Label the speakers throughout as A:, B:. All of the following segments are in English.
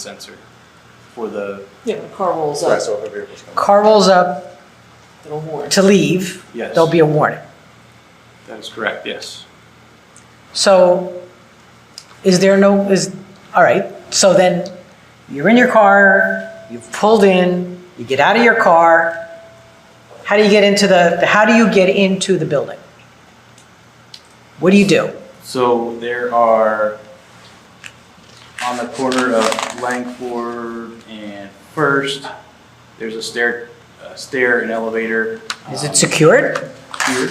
A: sensor for the,
B: Yeah, the car rolls
C: Right,
B: up,
C: so if a vehicle's coming.
D: Car rolls up
B: it'll warn.
D: to leave,
A: Yes.
D: there'll be a warning.
A: that is correct, yes.
D: So is there no, is, all right, so then you're in your car, you've pulled in, you get out of your car. How do you get into the, how do you get into the building? What do you do?
A: So there are, on the corner of Langford and First, there's a stair, a stair and elevator.
D: Is
A: um,
D: it secured?
A: here.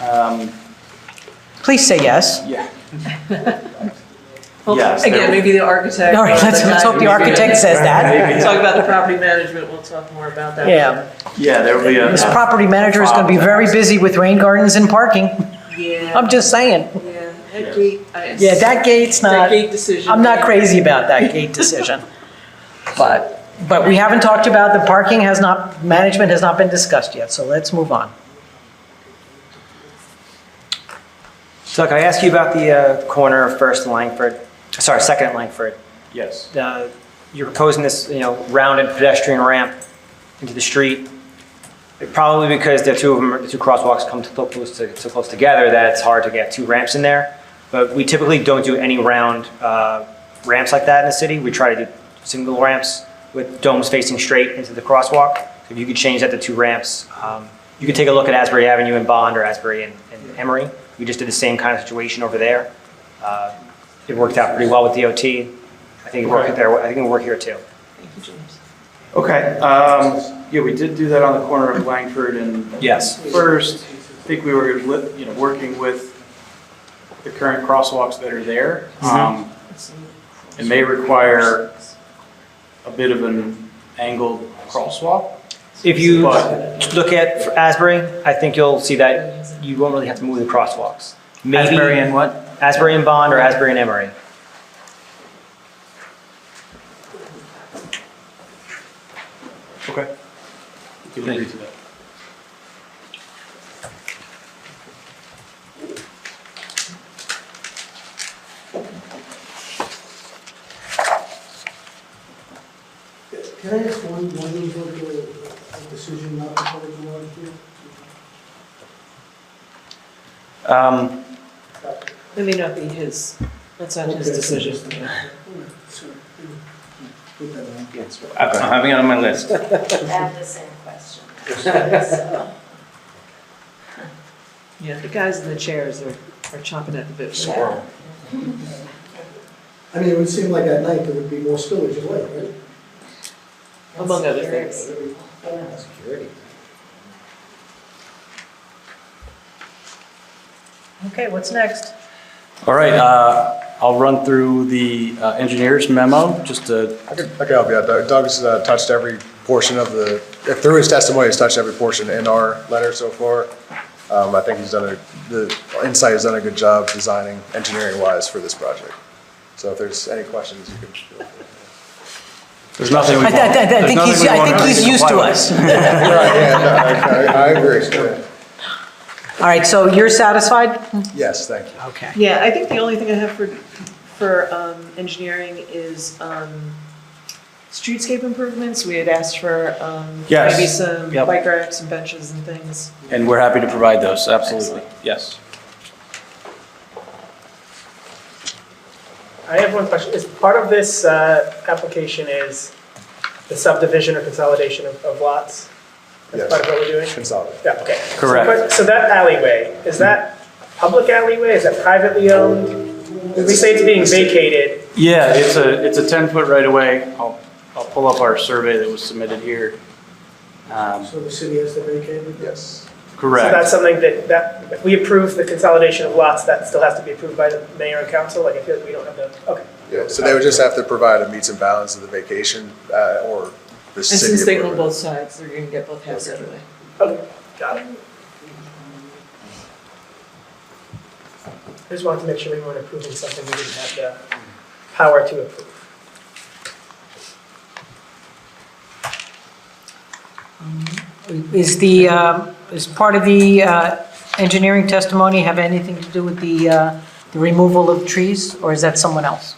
A: Um,
D: Please say yes.
A: yeah,
B: Well,
A: Yes, there-
B: Again, maybe the architect.
D: All right,
B: or
D: let's, let's
B: guy
D: hope the
B: who's
D: architect says that.
B: gonna Talk about the property management, we'll talk more about that.
D: Yeah,
A: yeah, there will be
D: this
A: a,
D: property manager is gonna be very busy with rain gardens and parking.
B: Yeah.
D: I'm just saying.
B: Yeah, that gate. I-
D: Yeah, that gate's
B: That
D: not,
B: gate decision.
D: I'm not crazy about that gate decision. But, but we haven't talked about, the parking has not, management has not been discussed yet, so let's move on.
E: So can I ask you about the uh, corner of First and Langford? Sorry, Second and Langford.
A: yes,
E: Uh, You're proposing this, you know, rounded pedestrian ramp into the street. Probably because the two of them, the two crosswalks come so close, to, so close together that it's hard to get two ramps in there. But we typically don't do any round uh, ramps like that in the city. We try to do single ramps with domes facing straight into the crosswalk. So if you could change that to two ramps, um, you could take a look at Asbury Avenue in Bond or Asbury and, and Emory. We just did the same kind of situation over there. Uh, it worked out pretty well with DOT. I think it worked
A: Okay.
E: there. I think it worked here too.
B: Thank you, James.
A: okay, um, yeah, we did do that on the corner of Langford and
E: Yes.
A: First, I think we were, li- you know, working with the current crosswalks that are there. Um, It may require a bit of an angled crosswalk.
E: If you
A: But-
E: look at Asbury, I think you'll see that you won't really have to move the crosswalks. Maybe
A: Asbury
E: and what? Asbury and Bond or Asbury and Emory.
A: Okay. We can agree to that.
F: Can I ask one, why you vote the, the decision not to put it in last year?
E: Um,
B: It may not be his, that's not his
F: Okay.
B: decision.
F: Put that on.
G: I'm having it on my list.
H: I have the same question. So,
B: Yeah, the guys in the chairs are, are chomping at the bit. for that.
F: I mean, it would seem like at night there would be more spillage of light, right?
B: Among other things.
F: Security.
D: Okay, what's next?
G: All right, uh, I'll run through the uh, engineer's memo, just to,
C: I could, I could help you out. Doug- Doug's uh, touched every portion of the, through his testimony, he's touched every portion in our letter so far. Um, I think he's done a, the Insight has done a good job designing engineering-wise for this project. So if there's any questions, you can.
G: there's nothing we
D: I,
G: want.
D: I- I- I
G: there's
D: think
G: nothing
D: he's,
G: we
D: I
G: want
D: think
G: to
D: he's used to
G: comply with.
D: us.
C: Right, yeah, no, I I agree.
D: All right, so you're satisfied?
C: Yes, thank you.
D: Okay.
B: Yeah, I think the only thing I have for, for um, engineering is um, streetscape improvements. We had asked for um,
G: Yes.
B: maybe some
G: Yep.
B: bike racks and benches and things.
G: And we're happy to provide those, absolutely, yes.
I: I have one question. Is part of this uh, application is the subdivision or consolidation of of lots? That's
C: Yes.
I: part of what we're doing?
C: Consolidate.
I: Yeah, okay. So,
G: Correct.
I: but- So that alleyway, is that public alleyway? Is that privately owned? We say it's being vacated.
A: Yeah, it's a, it's a 10-foot right-of-way. I'll, I'll pull up our survey that was submitted here. Um,
F: So the city has to vacate it?
C: Yes.
I: So that's
A: Correct.
I: something that, that, if we approve the consolidation of lots, that still has to be approved by the mayor and council? Like, I feel like we don't have the, okay.
C: Yeah, so they would just have to provide a meets and bounds of the vacation, uh, or the
B: And since
C: city.
B: they own
C: approval.
B: both sides, they're gonna get both halves anyway.
I: Okay, got it. I just wanted to make sure we weren't approving something we didn't have the power to approve.
D: Is the, um, is part of the uh, engineering testimony have anything to do with the, uh, the removal of trees, or is that someone else?